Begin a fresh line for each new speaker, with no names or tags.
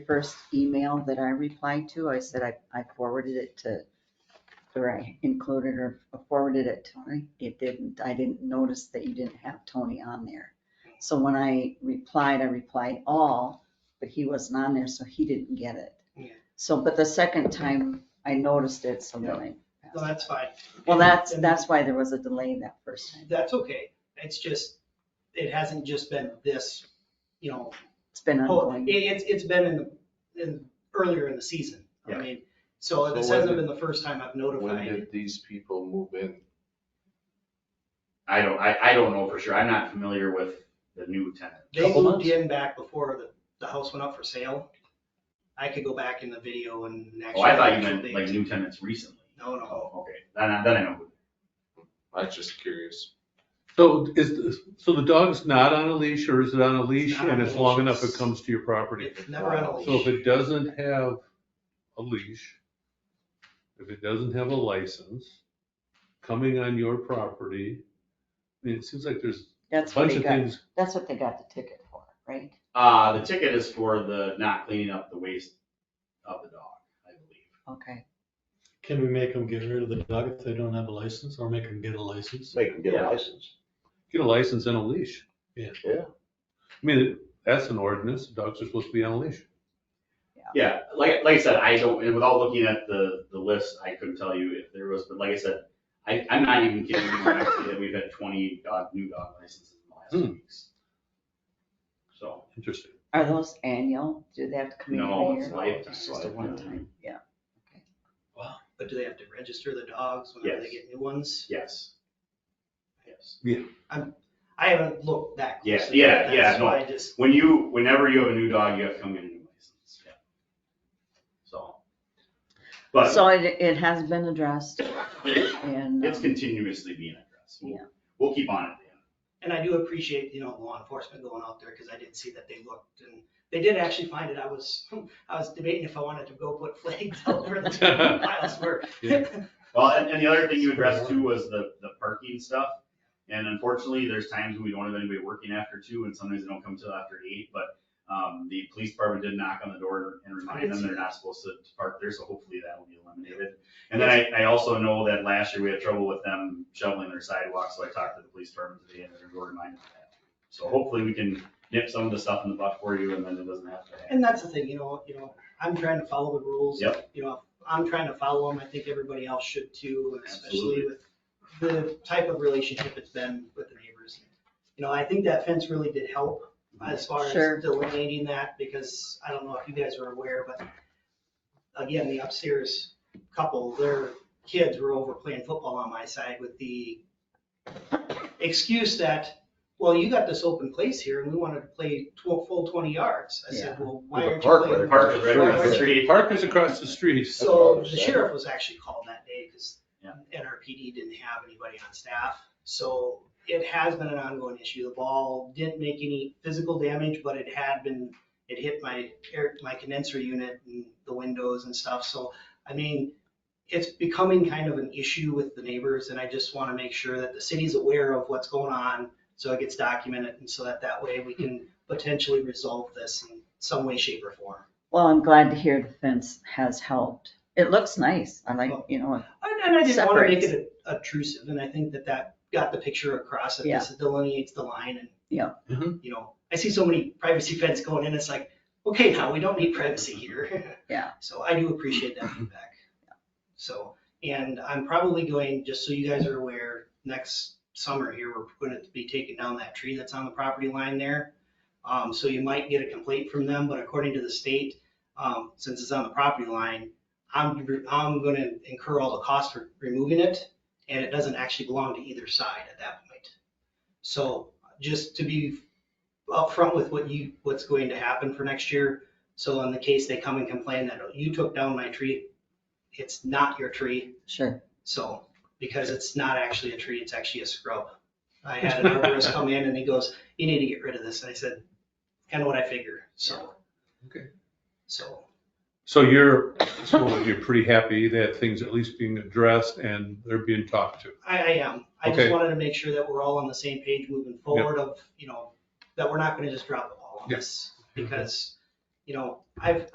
first email that I replied to, I said I, I forwarded it to, or I included or forwarded it to Tony. It didn't, I didn't notice that you didn't have Tony on there. So when I replied, I replied all, but he wasn't on there, so he didn't get it.
Yeah.
So, but the second time I noticed it, so then I.
No, that's fine.
Well, that's,
And-
that's why there was a delay that first time.
That's okay. It's just, it hasn't just been this, you know,
It's been
oh,
ongoing.
it, it's, it's been in, the in, earlier in the season. I
Yeah.
mean, so
So
this
when
hasn't
did-
been the first time I've
When
notified.
did these people move in?
I don't, I, I don't know for sure. I'm not familiar with the new tenant.
They
Couple
moved
months?
in back before the, the house went up for sale. I could go back in the video and
Oh,
actually.
I thought you meant like new tenants recently.
No, no.
Oh, okay. Then, I- then I know.
I'm just curious.
So is, so the dog's not on a leash or is it on a leash
not on
and
a
it's long
leash.
enough it comes to your property?
It's never on a
So if
leash.
it doesn't have a leash, if it doesn't have a license, coming on your property, I mean, it seems like there's a
That's what
bunch
they
of
got,
things.
that's what they got the ticket for, right?
Uh, the ticket is for the not cleaning up the waste of the dog, I believe.
Okay,
Can we make them get rid of the dog if they don't have a license or make them get a license?
Make them get
Yeah.
a license.
Get a license and a leash.
Yeah.
I mean, that's an ordinance. Dogs are supposed to be on a leash.
Yeah, like, like I said, I don't, and without looking at the, the list, I couldn't tell you if there was, but like I said, I, I'm not even kidding you when I say that we've had twenty dog, new dog licenses in the last two
Hmm.
weeks. So,
Interesting.
are those annual? Do they have to come in
no,
every
it's uh,
year?
lifetime.
It's Just a one time, yeah.
But do they have to register the dogs whenever they
Yes.
get new ones?
Yes. Yes.
I haven't looked that
Yeah,
closely.
yeah,
but
yeah,
that's
no.
why I just,
When you, whenever you have a new dog, you have to come get a new license, yeah. So. But
So it, it has been addressed and.
it's
um,
continuously being addressed. We'll-
Yeah.
We'll keep on it, Dan.
and I do appreciate, you know, law enforcement going out there because I did see that they looked and they did actually find it. I was, I was debating if I wanted to go put flags out where the piles were.
Well, and, and the other thing you addressed too was the, the parking stuff. And unfortunately, there's times when we don't have anybody working after two and sometimes they don't come till after eight, but, um, the police department did knock on the door and remind them they're not supposed to park there, so hopefully that will be eliminated. And then I, I also know that last year we had trouble with them shoveling their sidewalks, so I talked to the police department today and they're gonna remind them of that. So hopefully we can nip some of the stuff in the butt for you and then it doesn't have to happen.
And that's the thing, you know, you know, I'm trying to follow the rules.
Yep.
You know, I'm trying to follow them. I think everybody else should too, and especially
Absolutely.
with the type of relationship it's been with the neighbors. You know, I think that fence really did help. as far as
Sure.
delineating that, because I don't know if you guys are aware, but again, the upstairs couple, their kids were over playing football on my side with the excuse that, well, you got this open place here and we wanted to play tw- full twenty yards. I said, well, why
With the
aren't
park right
you playing?
Park is right across the street.
Park is across the street.
So
That's what I was
the
saying.
sheriff was actually called that day because
Yeah.
NRPD didn't have anybody on staff. So it has been an ongoing issue. The ball didn't make any physical damage, but it had been, it hit my air, my condenser unit and the windows and stuff. So, I mean, it's becoming kind of an issue with the neighbors and I just want to make sure that the city's aware of what's going on so it gets documented and so that that way we can potentially resolve this in some way, shape or form.
Well, I'm glad to hear the fence has helped. It looks nice. I like, you know,
And, and I didn't want to make
Separates.
it obtrusive, and I think that that got the picture across, that this delineates the line and.
Yeah.
Mhm.
You know, I see so many privacy fence going in, it's like, okay, now we don't need privacy here.
Yeah.
So I do appreciate that feedback. So, and I'm probably going, just so you guys are aware, next summer here, we're going to be taking down that tree that's on the property line there. Um, so you might get a complaint from them, but according to the state, um, since it's on the property line, I'm, I'm gonna incur all the costs for removing it, and it doesn't actually belong to either side at that point. So just to be upfront with what you, what's going to happen for next year, so in the case they come and complain that "Oh, you took down my tree, it's not your tree,
sure.
so, because it's not actually a tree, it's actually a scrub. I had an arborist come in and he goes, you need to get rid of this, and I said, kind of what I figure, so.
Okay.
So,
So you're, so you're pretty happy that things at least being addressed and they're being talked to.
I, I am. I just
Okay.
wanted to make sure that we're all on the same page moving forward of, you know, that we're not gonna just drop the ball on
Yeah.
this. Because, you know, I've,